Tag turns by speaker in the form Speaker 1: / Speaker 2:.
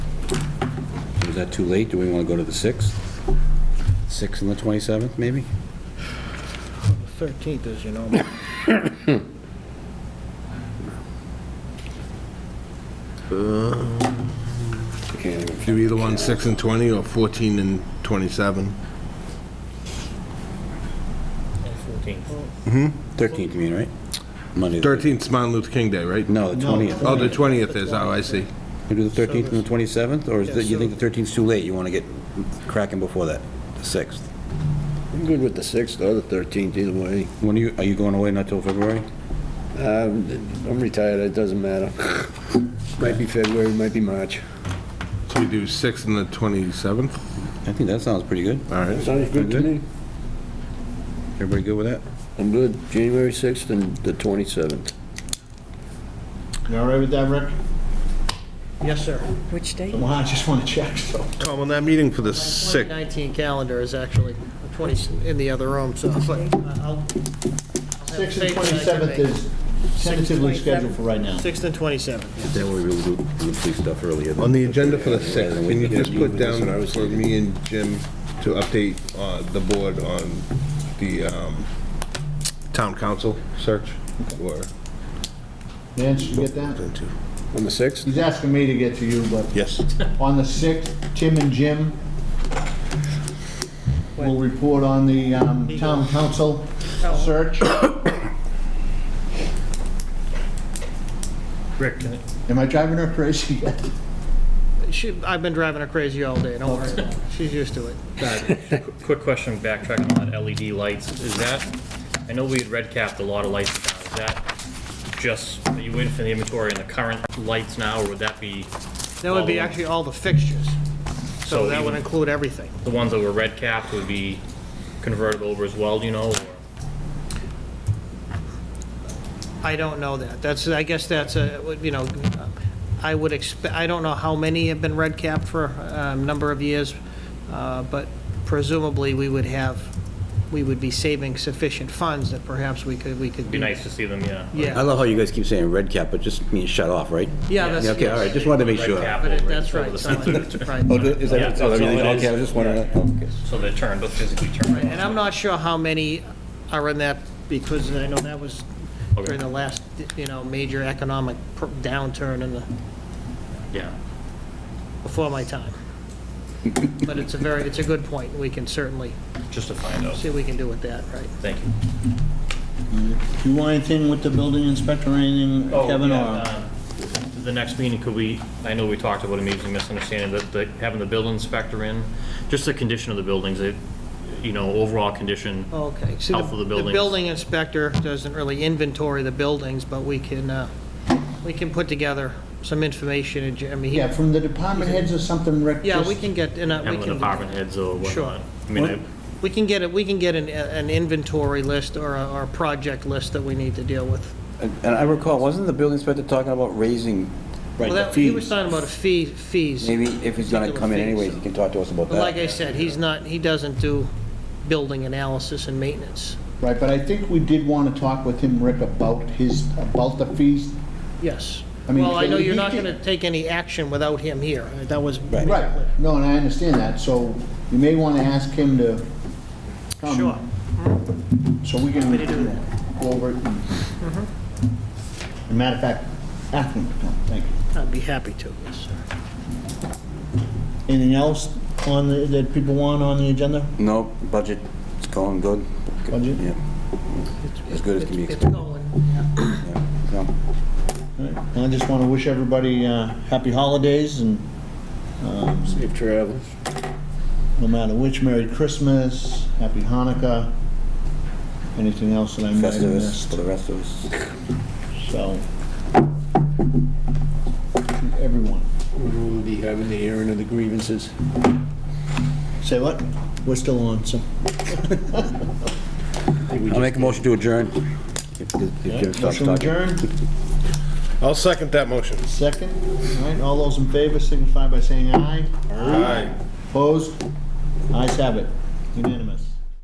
Speaker 1: Is that too late? Do we want to go to the 6th? 6th and the 27th, maybe?
Speaker 2: The 13th is, you know,
Speaker 1: I can't even-
Speaker 3: Do either one 6 and 20 or 14 and 27?
Speaker 4: 14th.
Speaker 1: 13th, you mean, right? Monday. the-
Speaker 3: 13th's Martin Luther King Day, right?
Speaker 1: No, the
Speaker 2: No.
Speaker 1: 20th.
Speaker 3: Oh, the 20th is, oh, I see.
Speaker 1: We do the 13th and the 27th, or is
Speaker 2: Yeah,
Speaker 1: that, you
Speaker 2: so-
Speaker 1: think the 13th's too late? You want to get cracking before that, the 6th?
Speaker 5: I'm good with the 6th or the 13th, either way.
Speaker 1: When are you, are you going away not till February?
Speaker 5: Um, I'm retired, it doesn't matter. Might be February, might be March.
Speaker 3: So we do 6 and the 27th?
Speaker 1: I think that sounds pretty good.
Speaker 3: All right.
Speaker 5: Sounds good to me.
Speaker 1: Everybody good with that?
Speaker 5: I'm good, January 6th and the 27th.
Speaker 6: You all right with that, Rick?
Speaker 2: yes, sir.
Speaker 4: Which date?
Speaker 6: Well, I just want to check, so.
Speaker 3: Tom, on that meeting for the 6th,
Speaker 2: 2019 calendar is actually 20, in the other room, so it's like, I'll...
Speaker 6: 6th and 27th is tentatively scheduled for right now.
Speaker 2: 6th and 27th, yes.
Speaker 1: Then we'll do the police stuff earlier.
Speaker 3: on the agenda for the 6th, can you just put down
Speaker 1: Yeah.
Speaker 3: for me and Jim to update uh, the board on the um, town council search? Or
Speaker 6: Vance, you get that?
Speaker 5: On the 6th?
Speaker 6: He's asking me to get to you, but
Speaker 3: Yes.
Speaker 6: on the 6th, Tim and Jim will report on the um, town council
Speaker 2: Oh.
Speaker 6: search.
Speaker 2: Rick, can it-
Speaker 6: Am I driving her crazy yet?
Speaker 2: she, I've been driving her crazy all day, don't worry. about it. She's used to it.
Speaker 4: Quick question, backtracking on LED lights, is that, I know we had red capped a lot of lights now, is that just, are you waiting for the inventory on the current lights now, or would that be
Speaker 2: That would be
Speaker 4: Follow.
Speaker 2: actually all the fixtures, so
Speaker 4: So
Speaker 2: that would
Speaker 4: even-
Speaker 2: include everything.
Speaker 4: the ones that were red capped would be converted over as well, do you know? or-
Speaker 2: I don't know that. That's, I guess that's a, would- you know, I would expect, I don't know how many have been red capped for a number of years, uh, but presumably we would have, we would be saving sufficient funds that perhaps we could, we could.
Speaker 4: Be
Speaker 2: do-
Speaker 4: nice to see them, yeah.
Speaker 1: I
Speaker 2: Yeah,
Speaker 1: love how you guys keep saying red cap, but just means shut off, right?
Speaker 2: yeah, that's.
Speaker 1: Okay, all right, just wanted to make
Speaker 4: Red
Speaker 1: sure.
Speaker 4: cap
Speaker 2: But it-
Speaker 4: over-
Speaker 2: that's
Speaker 4: over
Speaker 2: right.
Speaker 4: the
Speaker 2: so I
Speaker 4: center.
Speaker 2: think it's right.
Speaker 1: Oh, do- is
Speaker 4: Yeah,
Speaker 1: that,
Speaker 4: that's
Speaker 1: oh,
Speaker 4: all
Speaker 1: everything,
Speaker 4: it
Speaker 1: okay, I
Speaker 4: is.
Speaker 1: was just wondering. oh, okay.
Speaker 4: So they're turned, but physically turned.
Speaker 2: And I'm not sure how many are in that, because I know that was during the last, you know, major economic pr- downturn in the,
Speaker 4: Yeah.
Speaker 2: before my time. But it's a very, it's a good point. We can certainly
Speaker 4: Just to find out.
Speaker 2: see what we can do with that, right?
Speaker 4: Thank you.
Speaker 6: Do you want anything with the building inspector or anything,
Speaker 4: Oh,
Speaker 6: Kevin?
Speaker 4: yeah,
Speaker 6: or-
Speaker 4: um, The next meeting, could we, I know we talked about a meeting misunderstanding, that, that having the building inspector in, just the condition of the buildings, it, you know, overall condition.
Speaker 2: Okay. See,
Speaker 4: Health of the
Speaker 2: The
Speaker 4: buildings.
Speaker 2: building inspector doesn't really inventory the buildings, but we can, uh, we can put together some information, and, I mean, he-
Speaker 6: Yeah, from the department heads or something, Rick?
Speaker 2: yeah,
Speaker 6: just-
Speaker 2: we can get, and, uh, we
Speaker 4: Having the
Speaker 2: can-
Speaker 4: department heads or
Speaker 2: Sure.
Speaker 4: whatnot. I mean, I-
Speaker 2: We can get, it. we can get an, uh, an inventory list or a, or a project list that we need to deal with.
Speaker 1: And and I recall, wasn't the building inspector talking about raising
Speaker 2: Well,
Speaker 1: the
Speaker 2: that- He was
Speaker 1: fees?
Speaker 2: talking about a fee, fees.
Speaker 1: Maybe if he's gonna come in anyways, he can talk to us about
Speaker 2: But like
Speaker 1: that.
Speaker 2: I said, he's not, he doesn't do building analysis and maintenance.
Speaker 6: Right, but I think we did want to talk with him, Rick, about his, about the fees.
Speaker 2: Yes.
Speaker 6: I mean,
Speaker 2: Well, I know
Speaker 6: he-
Speaker 2: you're
Speaker 6: he
Speaker 2: not
Speaker 6: can-
Speaker 2: gonna take any action without him here. That was.
Speaker 6: Right, no, and I understand that, so you may want to ask him to come.
Speaker 2: Sure.
Speaker 6: So we can
Speaker 2: to do
Speaker 6: go over it. and- As a matter of fact, ask him to come, thank you.
Speaker 2: I'd be happy to, yes, sir.
Speaker 6: Anything else on, the- that people want on the agenda?
Speaker 1: No, budget, it's going good.
Speaker 6: Budget?
Speaker 1: Yeah. As good as can be
Speaker 2: It's
Speaker 1: expected.
Speaker 2: going.
Speaker 1: yeah. No.
Speaker 6: All right. Well, I just want to wish everybody uh, happy holidays and um,
Speaker 5: Safe travels.
Speaker 6: no matter which, Merry Christmas, Happy Hanukkah, anything else that I might have
Speaker 1: Festivus
Speaker 6: missed.
Speaker 1: for the rest of us.
Speaker 6: So, to everyone.
Speaker 5: We'll be having the hearing of the grievances.
Speaker 6: Say what? We're still on, so.
Speaker 1: I'll make a motion to adjourn. If- if Jim stops
Speaker 6: Motion
Speaker 1: talking.
Speaker 6: adjourned,
Speaker 3: I'll second that motion.
Speaker 6: second. All right, all those in favor signify by saying aye.
Speaker 3: Aye.
Speaker 6: Opposed? Ayes have it. Unanimous.